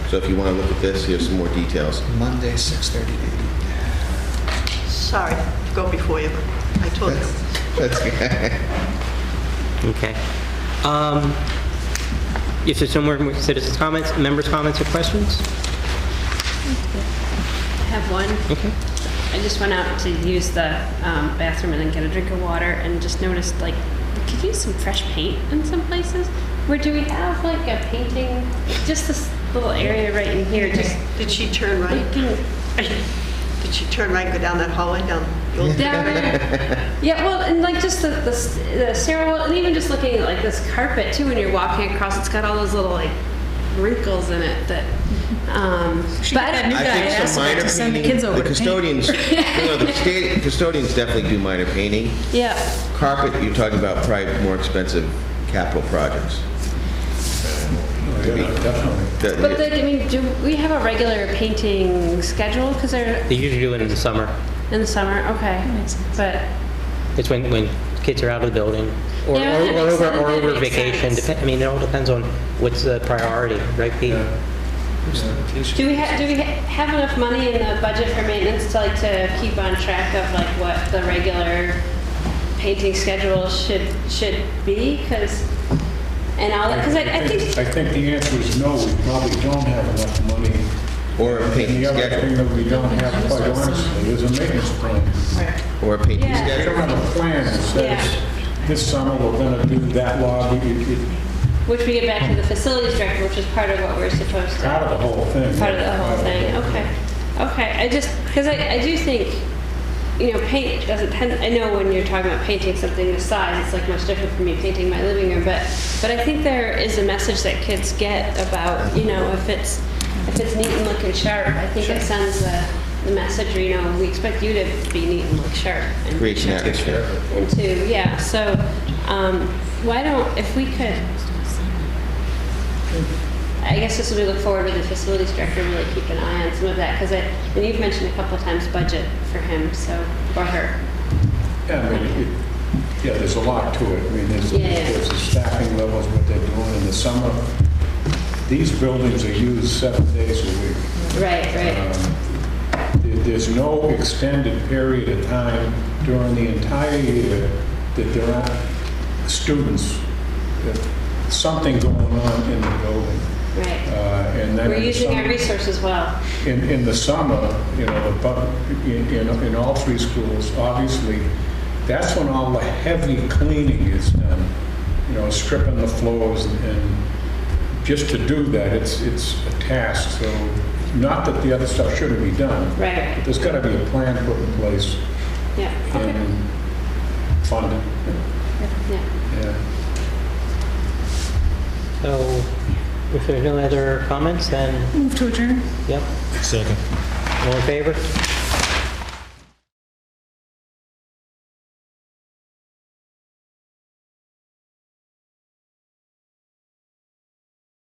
So if you want to look at this, here's some more details. Monday, 6:30 to 8. Sorry, go before you. I told you. That's Okay. Um, If there's no more citizens' comments, members' comments or questions? I have one. Okay. I just went out to use the um, bathroom and then get a drink of water and just noticed like we could use some fresh paint in some places. Where do we have like a painting? Just this little area right in here. Just Did she turn right? looking Did she turn right, go down that hallway, down the old... down there. Yeah, well, and like just the, the s- the stairwell, and even just looking at like this carpet too when you're walking across. It's got all those little like wrinkles in it that. Um, She but got I that new don't- I think guy asked some about minor to send the painting- kids over to The paint. custodians, you know, the sta- custodians definitely do minor painting. yeah. Carpet, you're talking about probably more expensive capital projects. That- But like, I mean, do we have a regular painting schedule? Because they're They usually do it in the summer. in the summer, okay. makes sense. But It's when, when kids are out of the building or, Yeah, or or that makes over, sense. or That over makes vacation. sense. Depen- I mean, it all depends on what's the priority, right, Pete? do we have do we ha- have enough money in the budget for maintenance to like to keep on track of like what the regular painting schedule should should be? Because and all because I, I think I think the answer is no, we probably don't have enough money. Or a And painting the other thing schedule, that we don't have, quite honestly, is a maintenance plan. or a painting Yeah. We schedule. don't have a plan that says, this summer we're gonna do that lobby, It- it's which we get back to the facilities director, which is part of what we're supposed to. part of the whole thing. part of the whole thing. Part of the whole Okay, okay. I just because I, I do think you know paint doesn't tend. I know when you're talking about painting something this size, it's like much different from me painting my living room. But but I think there is a message that kids get about you know if it's if it's neat and looking sharp. I think it sends the, the message. You know, we expect you to be neat and look sharp. And Creates an atmosphere. into, yeah, so, um, why don't, if we could, I guess this will be look forward with the facilities director, really keep an eye on some of that, because I, and you've mentioned a couple of times budget for him, so, or her. thing. Yeah, I mean, it- yeah, there's a lot to it. I mean, there's, Yeah, yeah. there's the staffing levels, what they're doing in the summer. These buildings are used seven days a week. Right, right, Um, there- There's no extended period of time during the entire year that there aren't students, that something going on in the building. Uh, right. And then We're in the using our summer- resources well, in, in the summer, you know, but in, in, in all three schools, obviously, that's when all the heavy cleaning is done. You know, stripping the floors and, and just to do that, it's, it's a task, so not that the other stuff shouldn't be done. right, right, There's gotta be a plan put in place yeah, okay, and funding, yeah. yeah. So if there's no other comments, then, Move to adjourn. yep. Second. All in favor?